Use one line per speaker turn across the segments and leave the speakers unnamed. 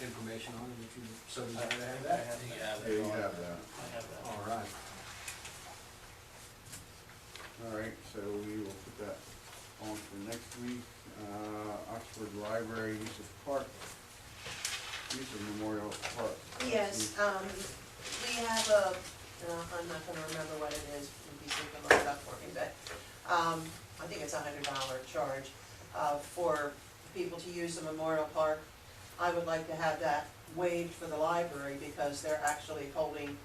information on it, if you so desire
I
to have
have
that?
that.
Yeah, you have that.
I have that.
All right.
All right, so we will put that on for next week. Uh, Oxford Library, use of park, use of Memorial Park.
Yes, um, we have a, uh, I'm not gonna remember what it is, maybe you can look it up for me, but, um, I think it's a hundred dollar charge, uh, for people to use the Memorial Park. I would like to have that waived for the library because they're actually holding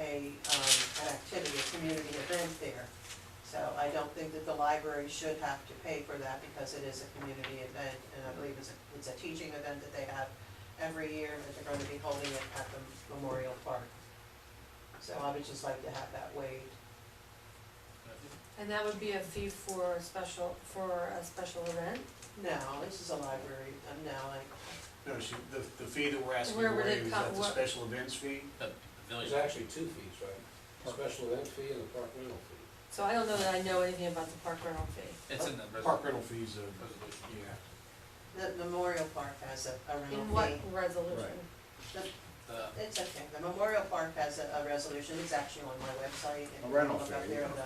a, um, an activity, a community event there. So I don't think that the library should have to pay for that because it is a community event, and I believe it's a, it's a teaching event that they have every year that they're gonna be holding it at the Memorial Park. So I would just like to have that waived.
And that would be a fee for a special, for a special event?
No, this is a library, uh, no, I,
No, she, the, the fee that we're asking
Where
to
would it
waive, is
come-
that the
what-
special events fee?
The village,
There's actually two fees, right? A Special event fee and a park rental fee.
So I don't know that I know anything about the park rental fee.
it's in the res-
Park rental fees are,
resolution.
yeah.
the Memorial Park has a, a
In
rental
what
fee.
resolution?
Right.
The-
It's okay, the Memorial Park has a, a resolution, it's actually on my website. if
A
you
rental
look up
fee,
there,
yeah.
the,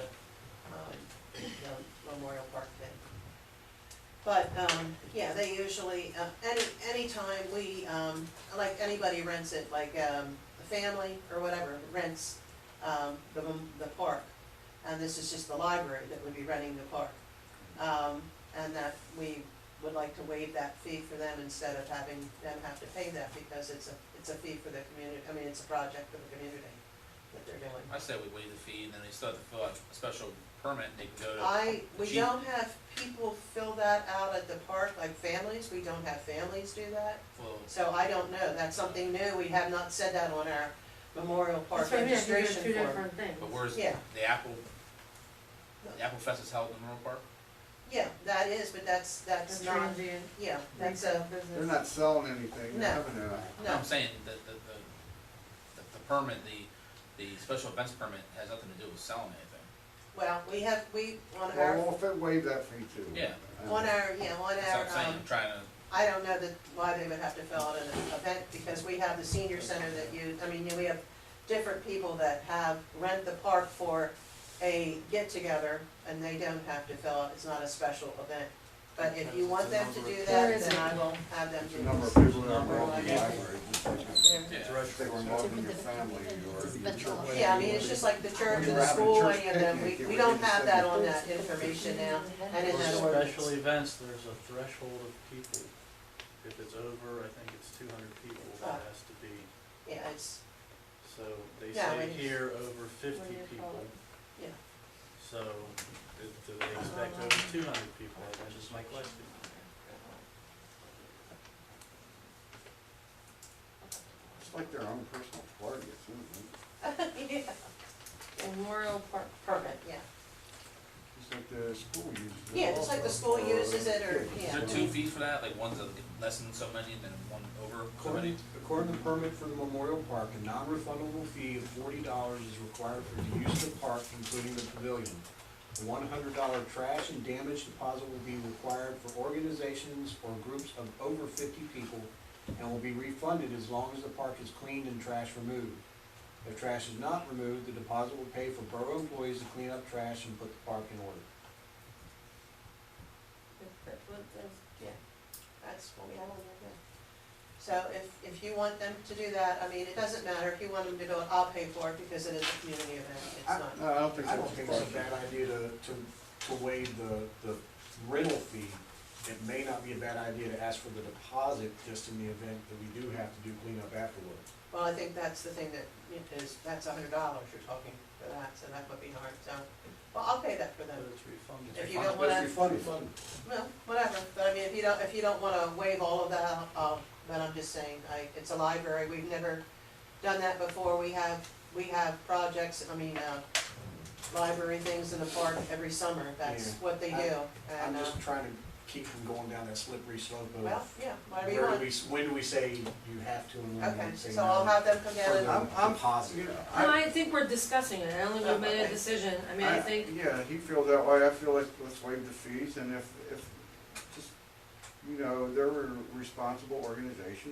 um, the Memorial Park thing. But, um, yeah, they usually, uh, any, anytime we, um, like, anybody rents it, like, um, a family or whatever rents, um, the, mem- the park. And this is just the library that would be renting the park. Um, and that we would like to waive that fee for them instead of having them have to pay that because it's a, it's a fee for the community, I mean, it's a project for the community that they're doing.
I say we waive the fee and then they still have to fill out a special permit and they can go to.
I, we
Chief.
don't have people fill that out at the park, like families, we don't have families do that.
Well,
So I don't know, that's something new, we have not said that on our Memorial Park
That's what I mean, I think they're
registration
Two
form.
different things.
but where's
Yeah.
the Apple, the Apple Fest is held in Monroe Park?
Yeah, that is, but that's, that's
The
not,
transient
yeah, that's a,
retail
They're
business.
not selling anything,
No.
they're having a,
no,
I'm saying that the, the, the- the permit, the, the special events permit has nothing to do with selling anything.
well, we have, we, on our,
well, we'll fit waive that fee too.
Yeah.
Uh,
on our, yeah, on
That's what I'm
our,
saying,
um,
I'm trying to,
I don't know that, why they would have to fill out an event, because we have the senior center that you, I mean, we have different people that have rent the park for a get-together, and they don't have to fill out, it's not a special event. But if you want them to do
There
that,
is
then I
it.
will have them
It's
do
a number of
this.
people that are involved in the
Yeah.
library, just like
There.
yeah.
if they were involved in your family or your church.
Yeah, I mean, it's just like the church
When
and
you're
the
having a
school,
church
any of them, we,
picnic,
we
it
don't
would be
have that on that
separate.
information now, and in
For
that
special
ordinance.
events, there's a threshold of people. If it's over, I think it's two hundred people
Ah.
that has to be.
Yeah, it's,
So they
Yeah,
say
when-
here over
What
fifty
do you call
people.
it?
Yeah.
So do do they expect over two hundred people? That's just my question.
It's like their own personal party, it's,
yeah,
Memorial Park
permit, yeah.
it's like the school uses it.
Yeah, just like the
also
school
for
uses it, or,
kids.
Is
yeah.
there two fees for that, like one's a less than so many and then one over so many?
According, according to the permit for the Memorial Park, a non-refundable fee of forty dollars is required for the use of the park, including the pavilion. A one hundred dollar trash and damage deposit will be required for organizations or groups of over fifty people and will be refunded as long as the park is cleaned and trash removed. If trash is not removed, the deposit will pay for borough employees to clean up trash and put the park in order.
That's what we have on there, yeah. So if, if you want them to do that, I mean, it doesn't matter, if you want them to do it, I'll pay for it, because it is a community event, it's
I-
not.
No, I don't think
I don't think it's
that's
a bad idea to, to, to waive the, the rental fee. It may not be a bad idea to ask for the deposit just in the event that we do have to do cleanup afterward.
Well, I think that's the thing that it is, that's a hundred dollars you're talking for that, so that would be hard, so, well, I'll pay that for them.
it's refunded.
If you don't wanna, well, whatever, but I mean, if you don't, if you don't wanna waive all of that, I'll, but I'm just saying, I, it's a library, we've never done that before, we have, we have projects, I mean, uh, library things in the park every summer, that's
Yeah.
what they do,
I-
and, uh.
I'm just trying to keep from going down that slippery slope
Well,
of
yeah, whatever you
where do
want.
we, s- when do we say you have to and when do
Okay,
we say no?
so I'll have them come
For
down
the
and,
I'm- I'm-
deposit.
Yeah,
No, I think we're discussing it, I only
Oh,
we made a
okay.
decision, I mean, I think,
Yeah, he feels that way, I feel like let's waive the fees, and if, if, just, you know, they're a responsible organization,